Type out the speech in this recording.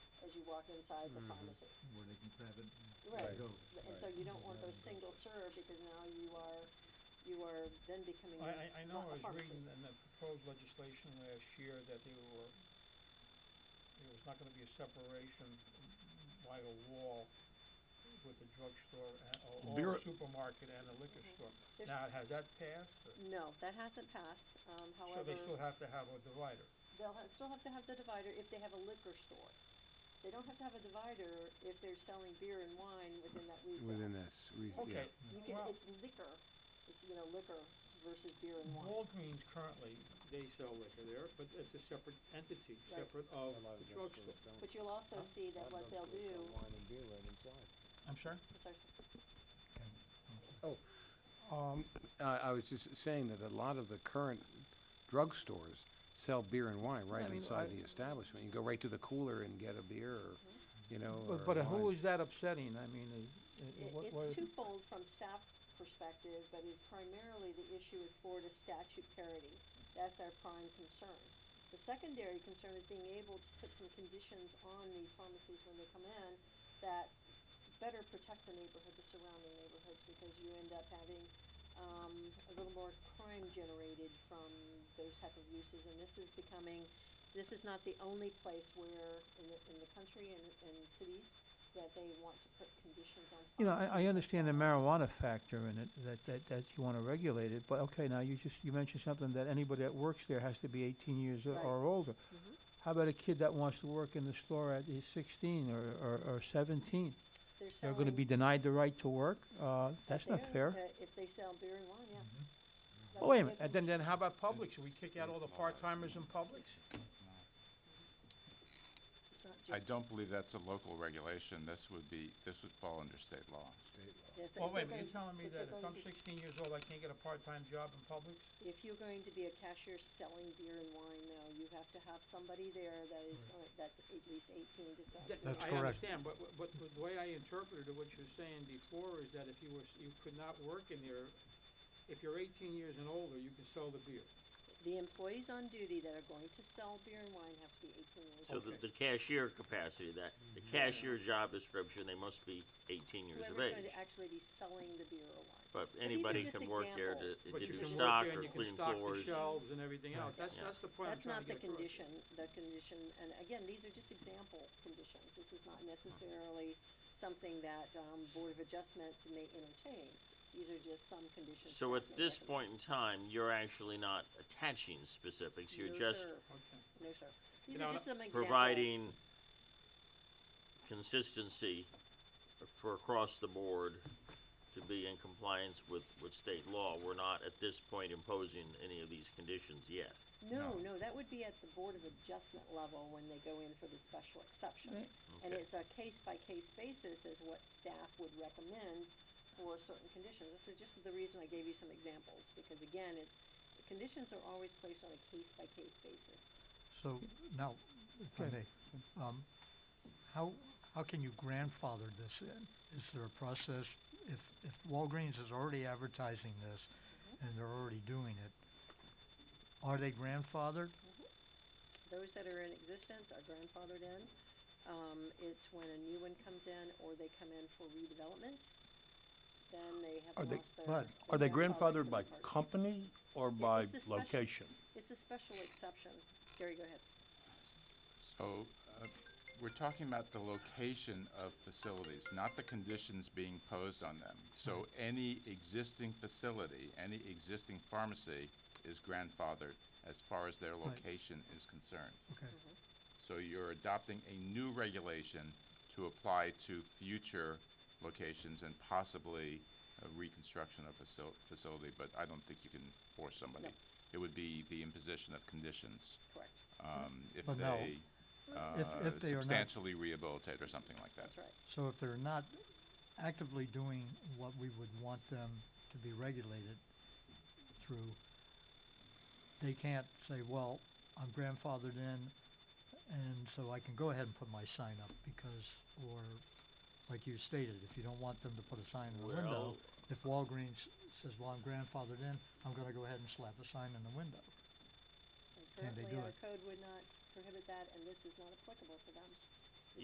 sidewalk inside the pharmacy. where they can grab it. and Right, Go. and so you don't want those single serve, because now you are, you are then becoming I, I- I know, not a I was pharmacy. reading in the proposed legislation last year that they were, there was not gonna be a separation by a wall with the drugstore, and- or Beer- or supermarket and a liquor store. Mm-hmm. There's- Now, has that passed? or- No, that hasn't passed, um, So they still however, have to have a divider. they'll ha- still have to have the divider if they have a liquor store. They don't have to have a divider if they're selling beer and wine within that retail. within this, we, yeah. Okay, You can, well, it's liquor, it's, you know, liquor versus beer and Mm-hmm. wine. Walgreens currently, they sell liquor there, but it's a separate entity, Right. separate A of lot the drugstore. of drugstores don't. But you'll also see A lot that what of they'll drugstores sell do, Wine and beer right inside. I'm sorry? sorry, Oh, Um, I, I was just saying that a lot of the current drugstores sell beer and wine I right mean, I- inside the establishment. You go right to the cooler and get a beer or, Mm-hmm. you know, or But, but who wine. is that upsetting? I mean, i- i- It- what, It's what? twofold from staff perspective, but is primarily the issue with Florida statute parity. That's our prime concern. The secondary concern is being able to put some conditions on these pharmacies when they come in that better protect the neighborhood, the surrounding neighborhoods, because you end up having, um, a little more crime generated from those type of uses, and this is becoming, this is not the only place where, in the, in the country and, and cities, that they want to put conditions on. You know, I, I pharmacies understand the that sell- marijuana factor in it, that, that, that you want to regulate it, but okay, now you just, you mentioned something that anybody that works there has to be eighteen years or- Right. or older. Mm-hmm. How about a kid that wants to work in the store at he's sixteen or, or, or seventeen? They're They're gonna selling- be denied the right to work? Uh, that's not They're- fair. uh, If they sell beer and wine, yes. That Oh, wait a would be minute, and then, condition. then how about Publix? Should we kick out all the part-timers in Publix? It's not I just- don't believe that's a local regulation. This would be, this would fall under state law. State law. Yeah, so Well, if they're wait, but you're going- telling me if they're that if I'm going to- sixteen years old, I can't get a part-time job in Publix? If you're going to be a cashier selling beer and wine, no, you have to have somebody there that is, going- that's at least eighteen to sell. That- beer. That's I correct. understand, but, but- but the way I interpreted what you're saying before is that if you were, you could not work in there, if you're eighteen years and older, you can sell the beer. The employees on duty that are going to sell beer and wine have to be eighteen years So old. the, the cashier capacity, that, the Mm-hmm. cashier job description, they must be eighteen years of Whoever's going age. to actually be selling the beer or wine. But these are anybody just can work there to, examples. to But you do can work stock there and or you can clean stock the floors. Shelves and everything else, that's, Yeah. that's the point I'm That's not trying to the get across. condition, the condition, and again, these are just example conditions. This is not necessarily something that, um, Board of Adjustments may entertain. These are just some conditions. So staff at may this recommend. point in time, you're actually not attaching specifics, you're No, just sir. Okay. No, sir. These know, are just some examples. providing consistency for across the board to be in compliance with, with state law. We're not at this point imposing any of these conditions yet. No, no, that would be at the Board of Adjustment level when they go in for the special exception. Right. And Okay. it's a case-by-case basis as what staff would recommend for certain conditions. This is just the reason I gave you some examples, because again, it's, the conditions are always placed on a case-by-case basis. So now, if I Okay. may, um, how, how can you grandfather this in? Is there a process, if, if Walgreens is already advertising this and they're already doing it, are they grandfathered? Those that are in existence are grandfathered in. Um, it's when a new one comes in or they come in for redevelopment, then they have Are they- lost their. Right. Are they they're for grandfathered the by part. company or by by it's the special- location? location? It's a special exception. Gary, go ahead. So, uh, we're talking about the location of facilities, not the conditions being posed on them. So any existing facility, any existing pharmacy is grandfathered as far as their location is concerned. Okay, So you're adopting a new regulation to apply to future locations and possibly a reconstruction of facil- facility, but I don't think you can force somebody. No. It would be the imposition of conditions, Correct. um, if But no. they, If- uh, if they are not- substantially rehabilitate or something like that. That's right. so if they're not actively doing what we would want them to be regulated through, they can't say, well, I'm grandfathered in and so I can go ahead and put my sign up because, or like you stated, if you don't want them to put a sign in the Well- window, if Walgreens says, well, I'm grandfathered in, I'm gonna go ahead and slap a sign in the window. And Can they currently, do our it? code would not prohibit that, and this is not applicable to them.